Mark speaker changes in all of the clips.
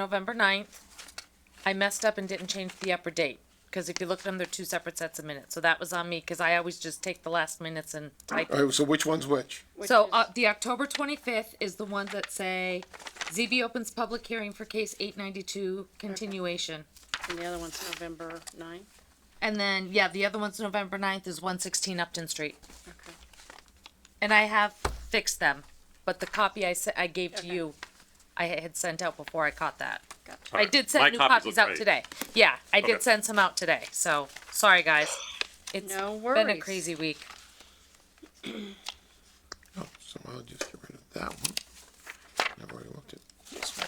Speaker 1: November 9th. I messed up and didn't change the upper date, because if you look at them, they're two separate sets of minutes, so that was on me, because I always just take the last minutes and type.
Speaker 2: All right, so which one's which?
Speaker 1: So, uh, the October twenty-fifth is the ones that say, ZB opens public hearing for case eight ninety-two continuation.
Speaker 3: And the other one's November nine?
Speaker 1: And then, yeah, the other one's November 9th is one sixteen Upton Street,
Speaker 3: Okay.
Speaker 1: and I have fixed them, but the copy I se- I gave to
Speaker 3: Okay.
Speaker 1: you, I had sent out before I caught that.
Speaker 3: Gotcha.
Speaker 1: I did send
Speaker 4: My
Speaker 1: new
Speaker 4: copies
Speaker 1: copies
Speaker 4: look
Speaker 1: out
Speaker 4: great.
Speaker 1: today. Yeah, I did
Speaker 4: Okay.
Speaker 1: send some out today. So sorry, guys. It's been
Speaker 3: No
Speaker 1: a
Speaker 3: worries.
Speaker 1: crazy week.
Speaker 2: Oh, so I'll just get rid of that one. I've already looked at this one.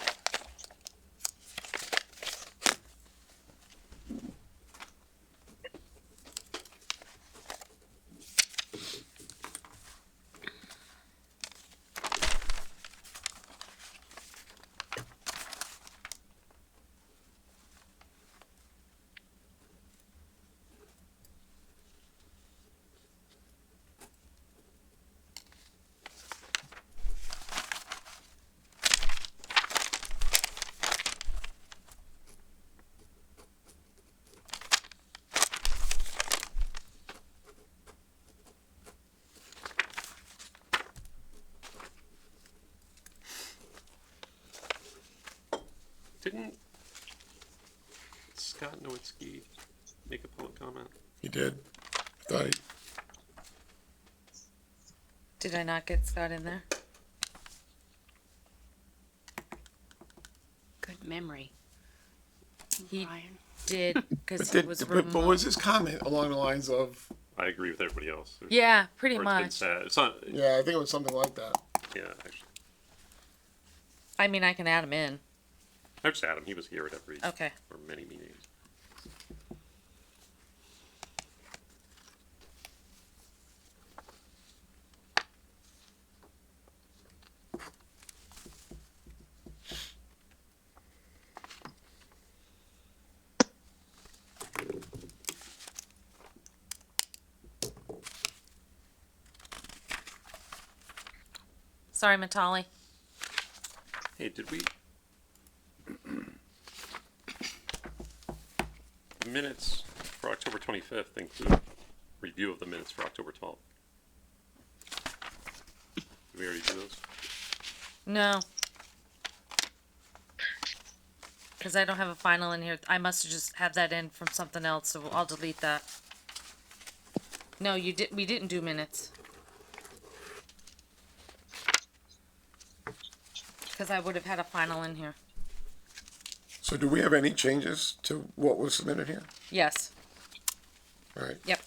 Speaker 4: Didn't Scott Nowitzki make a public comment?
Speaker 2: He did. I Thought he,
Speaker 1: Did I not get Scott in there?
Speaker 3: Good memory,
Speaker 1: He
Speaker 3: Ryan.
Speaker 1: did
Speaker 2: but
Speaker 1: because he
Speaker 2: did,
Speaker 1: was
Speaker 2: but, but was
Speaker 1: removed.
Speaker 2: his comment along the lines of,
Speaker 4: I agree with everybody else. There's-
Speaker 1: Yeah, pretty
Speaker 4: or it's been
Speaker 1: much.
Speaker 4: said. It's not. Yeah,
Speaker 2: yeah, I think it was something like that.
Speaker 4: actually,
Speaker 1: I mean, I can add him in.
Speaker 4: I just had him. He was here at every
Speaker 1: Okay.
Speaker 4: or many meetings.
Speaker 1: Sorry, Matali.
Speaker 4: Hey, did we? the minutes for October 25th include review of the minutes for October 12th. Did we already do those?
Speaker 1: No. Because I don't have a final in here. I must have just had that in from something else, so I'll delete that. No, you did. We didn't do minutes. Because I would have had a final in here.
Speaker 2: So do we have any changes to what was submitted here?
Speaker 1: Yes.
Speaker 2: All right.
Speaker 1: Yep.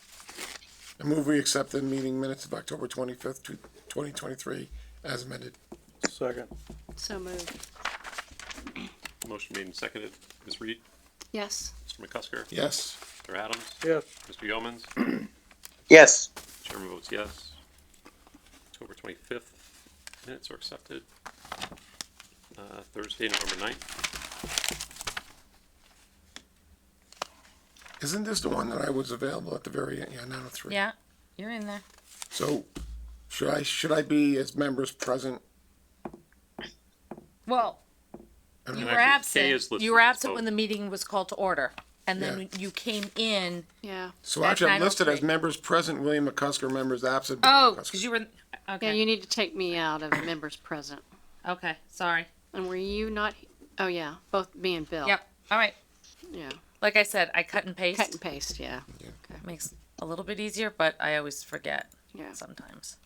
Speaker 2: I move we accept the meeting minutes of October twenty-fifth, twenty twenty-three as amended.
Speaker 4: Second.
Speaker 3: So moved.
Speaker 4: Motion made and seconded. Ms. Reed,
Speaker 3: Yes.
Speaker 4: Mr. McCusker,
Speaker 2: Yes.
Speaker 4: Mr. Adams,
Speaker 5: Yes.
Speaker 4: Mr. Yeomans.
Speaker 5: Yes.
Speaker 4: Chairman votes yes. October twenty-fifth minutes are accepted. Uh, Thursday, November ninth.
Speaker 2: Isn't this the one that I was available at the very end? Yeah, nine oh three.
Speaker 1: Yeah. You're in there.
Speaker 2: So should I, should I be as members present?
Speaker 1: Well,
Speaker 2: I don't
Speaker 1: you
Speaker 2: know.
Speaker 1: were
Speaker 4: actually, Kay
Speaker 1: absent.
Speaker 4: is listed
Speaker 1: You were
Speaker 4: as
Speaker 1: absent when the
Speaker 4: both.
Speaker 1: meeting was called to order, and then
Speaker 2: Yeah.
Speaker 1: you came in.
Speaker 3: Yeah.
Speaker 2: So
Speaker 1: That's
Speaker 2: actually, I'm listed
Speaker 1: 903.
Speaker 2: as members present, William McCusker, members absent. William
Speaker 1: Oh, because
Speaker 2: McCusker.
Speaker 1: you were. in-
Speaker 3: Yeah,
Speaker 1: Okay.
Speaker 3: you need to take me out of members present.
Speaker 1: Okay. Sorry.
Speaker 3: And were you not, oh yeah, both me and Bill.
Speaker 1: Yep. All right.
Speaker 3: Yeah,
Speaker 1: Like I said, I cut and paste.
Speaker 3: cut and paste, yeah,
Speaker 1: Makes it a little bit easier, but I always forget
Speaker 3: yeah.
Speaker 1: sometimes.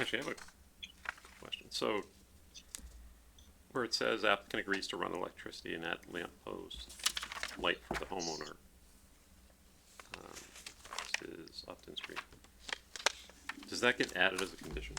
Speaker 4: Actually, I have a question. So where it says applicant agrees to run electricity and add lamp post light for the homeowner. um, This is Upton Street. Does that get added as a condition?